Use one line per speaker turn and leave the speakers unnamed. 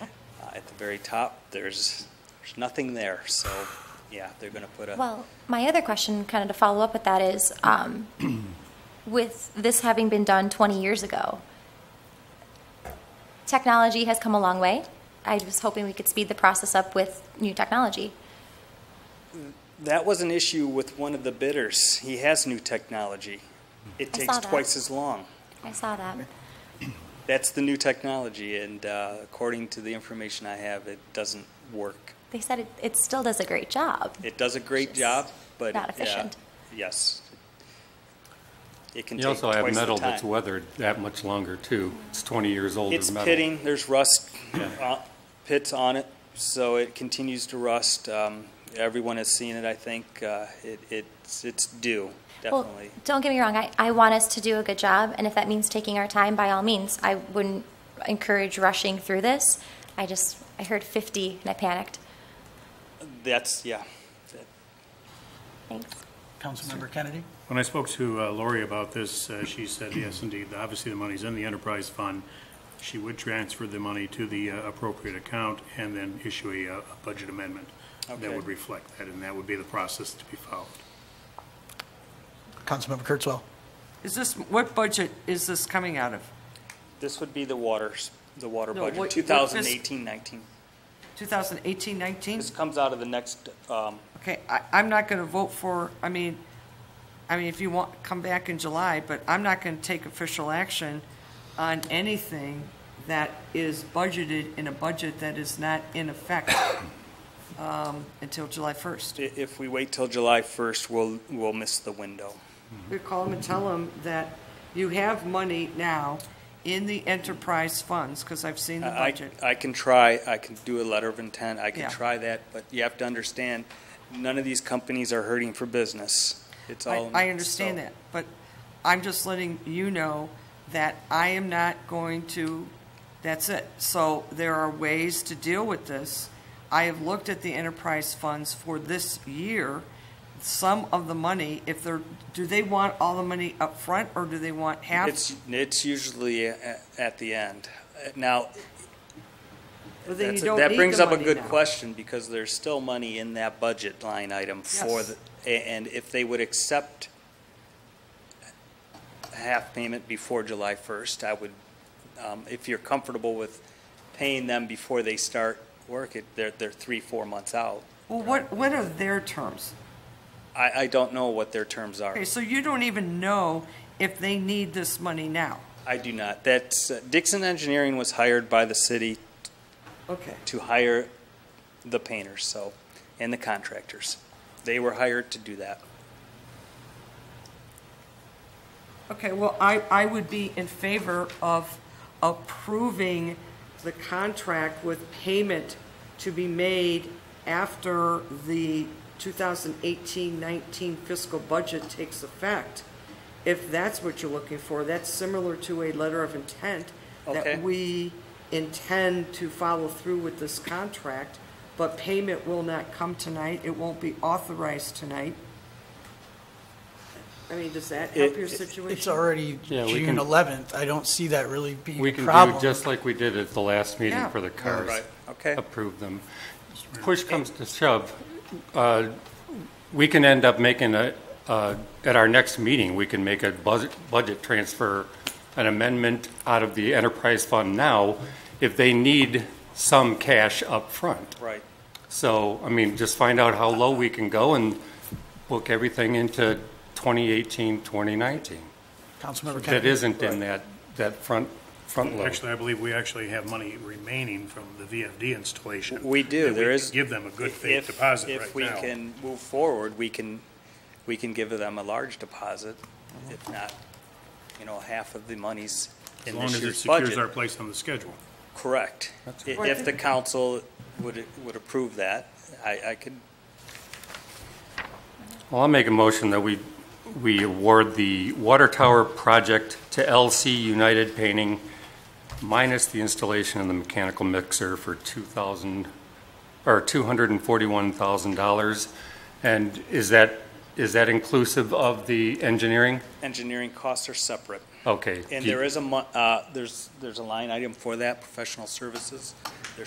Uh, the very top, there's, there's nothing there. So, yeah, they're going to put a,
Well, my other question, kind of to follow up with that, is um, with this having been done 20 years ago, technology has come a long way. I was hoping we could speed the process up with new technology.
that was an issue with one of the bidders. He has new technology. It
Hmm. I
takes
saw that.
twice as long.
I saw that.
That's the new technology, and uh, according to the information I have, it doesn't work.
They said it, it still does a great job.
It does a great
Just
job, but
not
yeah,
efficient.
yes, it can
You
take
also have
twice the
metal that's
time.
weathered that much longer, too. It's 20 years old
It's
metal.
pitting. There's rust uh, pits on it, so it continues to rust. Um, everyone has seen it. I think uh, it, it's it's due definitely.
Well, don't get me wrong, I, I want us to do a good job, and if that means taking our time, by all means, I wouldn't encourage rushing through this. I just, I heard 50 and I panicked.
That's yeah. That-
Thanks.
Councilmember Kennedy?
When I spoke to uh, Lori about this, uh, she said, yes, indeed, obviously the money's in the enterprise fund. She would transfer the money to the uh, appropriate account and then issue a, uh, a budget amendment
Okay.
that would reflect that, and that would be the process to be followed.
Councilmember Kurtzwell?
Is this, what budget is this coming out of?
This would be the waters, the water
No, what-
budget,
what
2018-19.
2018, 19?
This comes out of the next, um,
Okay, I, I'm not going to vote for, I mean, I mean, if you want, come back in July, but I'm not going to take official action on anything that is budgeted in a budget that is not in effect um, until July 1st.
i- if we wait till July 1st, we'll, we'll miss the window.
We call them and tell them that you have money now in the enterprise funds, because I've seen the
I,
budget.
I can try, I can do a letter of intent, I
Yeah.
can try that, but you have to understand, none of these companies are hurting for business. It's all.
I, I understand
so-
that, but I'm just letting you know that I am not going to, that's it. So there are ways to deal with this. I have looked at the enterprise funds for this year. Some of the money, if they're, do they want all the money up front or do they want half?
It's, it's usually a- at the end. Uh, Now,
Well, then you
That's-
don't
That
need
brings
the
up a
money
good
now.
question, because there's still money in that budget line item for
Yes.
the, a- and if they would accept a half payment before July 1st, I would, um, if you're comfortable with paying them before they start work, it- they're, they're three, four months out.
Well, what, what are their terms?
I, I don't know what their terms are.
Okay, so you don't even know if they need this money now.
I do not. That's, uh, Dixon Engineering was hired by the city
Okay.
to hire the painters, so, and the contractors. They were hired to do that.
Okay, well, I, I would be in favor of approving the contract with payment to be made after the 2018-19 fiscal budget takes effect. If that's what you're looking for, that's similar to a letter of intent
Okay.
that we intend to follow through with this contract, but payment will not come tonight. It won't be authorized tonight. I mean, does that help
It- it-
your
it's
situation?
It's already
Yeah, we
June
can-
11th. I don't see that really being
We
a
can
problem.
do just like we did at the last meeting
Yeah.
for the cars.
Right, okay.
Approve them. Push comes to shove, uh, we can end up making a, uh, at our next meeting, we can make a budget, budget transfer, an amendment out of the enterprise fund now if they need some cash up front.
Right.
So, I mean, just find out how low we can go and book everything into 2018, 2019.
Councilmember
That
Kennedy?
isn't in that, that front, front load.
Actually, I believe we actually have money remaining from the VFD installation.
We do.
that we
There
can
is-
Give them a good
If-
faith deposit
If
right
we
now.
can move forward, we can, we can give them a large deposit, if not, you know, half of the monies
As
in
long
this
as it
year's
secures our
budget.
place on the schedule.
Correct. I-
right.
If the council would, would approve that, I, I could,
Well, I'll make a motion that we, we award the water tower project to LC United Painting minus the installation of the mechanical mixer for 2,000, or $241,000. And is that, is that inclusive of the engineering?
engineering costs are separate.
Okay.
And
Do you-
there is a, mon- uh, there's, there's a line item for that, professional services. There's